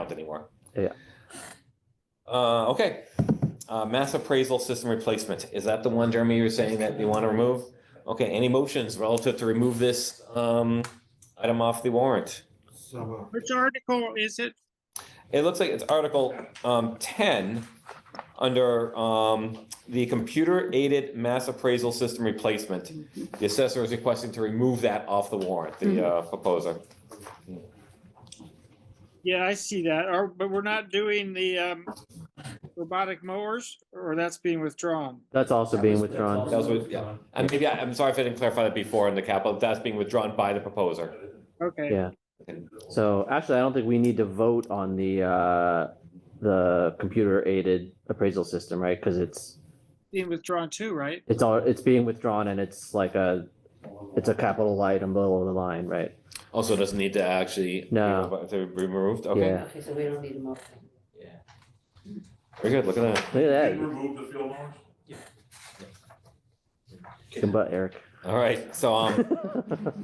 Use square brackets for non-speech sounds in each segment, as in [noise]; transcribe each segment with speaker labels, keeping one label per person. Speaker 1: around anymore.
Speaker 2: Yeah.
Speaker 1: Uh, okay, uh, mass appraisal system replacement, is that the one, Jeremy, you were saying that you want to remove? Okay, any motions relative to remove this, um, item off the warrant?
Speaker 3: So moved.
Speaker 4: Which article is it?
Speaker 1: It looks like it's Article um, 10 under um, the computer aided mass appraisal system replacement. The assessor is requesting to remove that off the warrant, the uh, proposer.
Speaker 4: Yeah, I see that. Or, but we're not doing the um, robotic mowers, or that's being withdrawn.
Speaker 2: That's also
Speaker 3: That
Speaker 2: being
Speaker 3: was- that's
Speaker 2: withdrawn.
Speaker 1: That was
Speaker 3: also
Speaker 1: with- yeah. And maybe, I- I'm sorry if I didn't clarify that before in the capital, that's being withdrawn by the proposer.
Speaker 4: Okay.
Speaker 2: Yeah. So actually, I don't think we need to vote on the, uh, the computer aided appraisal system, right? Because it's,
Speaker 4: Being withdrawn too, right?
Speaker 2: it's all, it's being withdrawn and it's like a, it's a capital item below the line, right?
Speaker 1: Also doesn't need to actually.
Speaker 2: No.
Speaker 1: To be removed, okay.
Speaker 2: Yeah.
Speaker 5: Okay, so we don't need a motion.
Speaker 1: Very good, look at that.
Speaker 2: Look at
Speaker 6: Did you
Speaker 2: that.
Speaker 6: remove the field arms?
Speaker 2: Good butt, Eric.
Speaker 1: All right, so
Speaker 2: [laughs]
Speaker 1: um,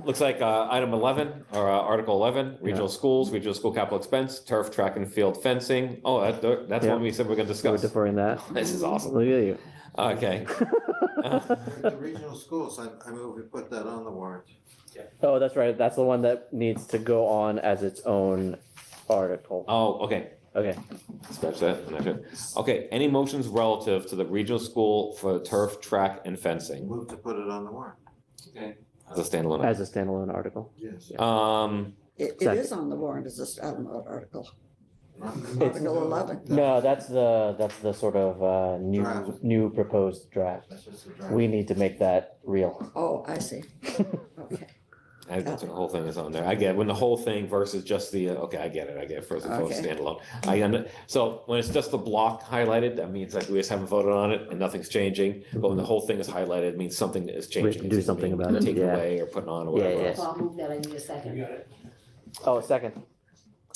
Speaker 1: Looks like uh, item 11, or uh, Article 11, regional schools, regional school capital expense, turf, track and field fencing. Oh, that- that's what
Speaker 2: Yeah.
Speaker 1: we said we're going to
Speaker 2: We're
Speaker 1: discuss.
Speaker 2: deferring that.
Speaker 1: This is awesome.
Speaker 2: Look at you. [laughs]
Speaker 1: Okay.
Speaker 3: The regional schools, I, I move we put that on the warrant.
Speaker 2: Oh, that's right. That's the one that needs to go on as its own article.
Speaker 1: Oh, okay.
Speaker 2: Okay,
Speaker 1: Scratch that. No, sure. Okay, any motions relative to the regional school for turf, track and fencing
Speaker 3: Move to put it on the warrant,
Speaker 1: as a standalone?
Speaker 2: as a standalone article.
Speaker 3: yes.
Speaker 1: Um,
Speaker 5: It, it
Speaker 2: Second.
Speaker 5: is on the warrant, it's just, I don't know, article.
Speaker 3: Not-
Speaker 5: Article 11.
Speaker 2: No, that's the, that's the sort of, uh, new,
Speaker 3: Draft.
Speaker 2: new proposed draft.
Speaker 3: That's just a draft.
Speaker 2: We need to make that real.
Speaker 5: Oh, I see. Okay.
Speaker 1: I that's what the whole thing is on there. I get when the whole thing versus just the, uh, okay, I get it. I get Frozen Throne
Speaker 5: Okay.
Speaker 1: standalone. I, under- so when it's just the block highlighted, that means like we just haven't voted on it and nothing's changing. But when the whole thing is highlighted, it means something is
Speaker 2: have to
Speaker 1: changing.
Speaker 2: do
Speaker 1: It's either
Speaker 2: something
Speaker 1: being
Speaker 2: about it,
Speaker 1: Taken
Speaker 2: yeah.
Speaker 1: away or put on or
Speaker 2: Yeah,
Speaker 1: whatever
Speaker 2: yeah.
Speaker 1: else.
Speaker 5: So I'll move that, I need a second.
Speaker 2: Oh, second.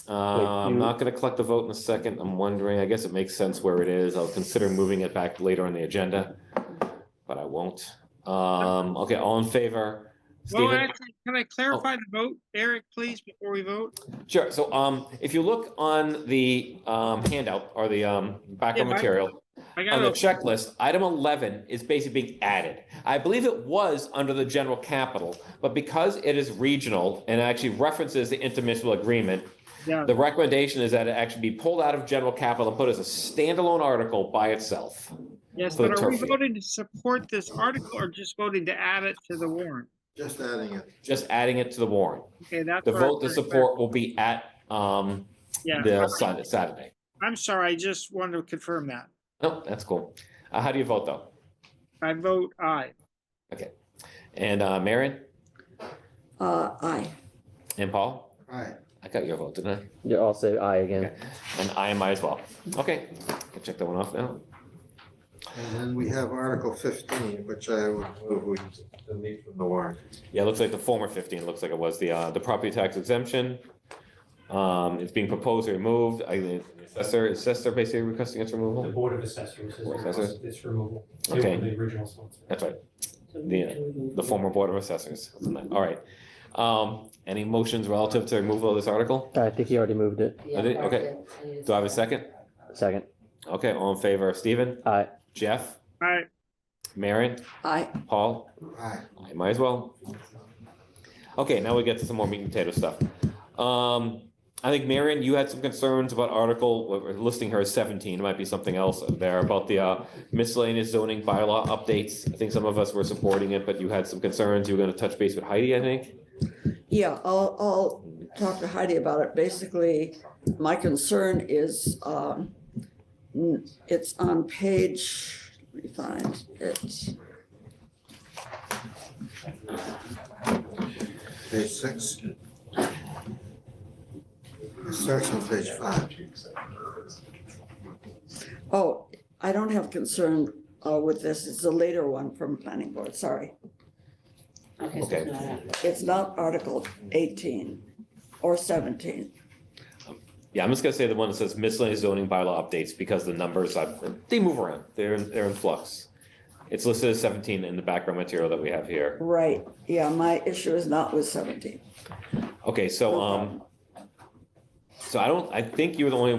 Speaker 1: Uh,
Speaker 2: you-
Speaker 1: I'm not gonna collect the vote in a second. I'm wondering, I guess it makes sense where it is. I'll consider moving it back later on the agenda. But I won't. Um, okay, all in favor?
Speaker 4: Well,
Speaker 1: Stephen?
Speaker 4: actually, can I clarify the vote, Eric, please, before we vote?
Speaker 1: Sure. So um, if you look on the um, handout or the um,
Speaker 4: Yeah,
Speaker 1: background
Speaker 4: mine-
Speaker 1: material,
Speaker 4: I
Speaker 1: on
Speaker 4: got
Speaker 1: the
Speaker 4: it.
Speaker 1: checklist, item 11 is basically being added. I believe it was under the general capital, but because it is regional and actually references the intermunicipal agreement,
Speaker 4: Yeah,
Speaker 1: the recommendation is that it actually be pulled out of general capital and put as a standalone article by itself.
Speaker 4: yes,
Speaker 1: for the
Speaker 4: but are we
Speaker 1: turf.
Speaker 4: voting to support this article or just voting to add it to the warrant?
Speaker 3: Just adding it.
Speaker 1: Just adding it to the warrant.
Speaker 4: Okay, that's.
Speaker 1: The
Speaker 4: what I'm
Speaker 1: vote to
Speaker 4: trying clarify.
Speaker 1: support will be at um,
Speaker 4: Yeah,
Speaker 1: the Sun- Saturday.
Speaker 4: I'm sorry, I just wanted to confirm that.
Speaker 1: No, that's cool. Uh, How do you vote, though?
Speaker 4: I vote aye.
Speaker 1: And uh, Marion
Speaker 5: Uh, aye.
Speaker 1: and Paul?
Speaker 3: Aye.
Speaker 1: I got your vote, didn't
Speaker 2: You all say aye again.
Speaker 1: I? And I am I as well. Okay, I'll check that one off now.
Speaker 3: And then we have Article fifteen, which I would move we delete from the warrant.
Speaker 1: Yeah, it looks like the former fifteen, looks like it was the, uh, the property tax exemption. Um, it's being proposed or removed. I, the assessor, assessor basically requesting its
Speaker 7: The
Speaker 1: removal.
Speaker 7: Board of Assessors is
Speaker 1: Board of Assessors.
Speaker 7: requesting this removal. They
Speaker 1: Okay.
Speaker 7: were The original sponsor.
Speaker 1: That's right, Yeah, the former board of assessors. All right. Um, any motions relative to removal of this article?
Speaker 2: I think he already moved it.
Speaker 5: Yeah,
Speaker 1: I did- okay.
Speaker 5: I need
Speaker 1: Do I have a second?
Speaker 2: Second.
Speaker 1: Okay, all in favor, Stephen,
Speaker 2: Aye.
Speaker 1: Jeff,
Speaker 4: Aye,
Speaker 1: Marion,
Speaker 5: Aye.
Speaker 1: Paul?
Speaker 3: Aye.
Speaker 1: I might as well. Okay, now we get to some more meat and potato stuff. Um, I think Marion, you had some concerns about article, we're listing her as seventeen, it might be something else there about the uh, miscellaneous zoning bylaw updates. I think some of us were supporting it, but you had some concerns. You were gonna touch base with Heidi, I think.
Speaker 5: Yeah, I'll, I'll talk to Heidi about it. Basically, my concern is, um, n- it's on page, let me find it.
Speaker 3: Page six. It Starts on page five.
Speaker 5: Oh, I don't have concern, uh, with this. It's a later one from planning board, sorry.
Speaker 1: so it's Okay. not
Speaker 5: It's not Article eighteen or seventeen.
Speaker 1: Yeah, I'm just gonna say the one that says miscellaneous zoning bylaw updates because the numbers, uh, they move around, they're, they're in flux. It's listed as seventeen in the background material that we have here.
Speaker 5: Right, yeah, my issue is not with seventeen.
Speaker 1: Okay, um, so,
Speaker 5: No
Speaker 1: um, So I don't, I think you were the only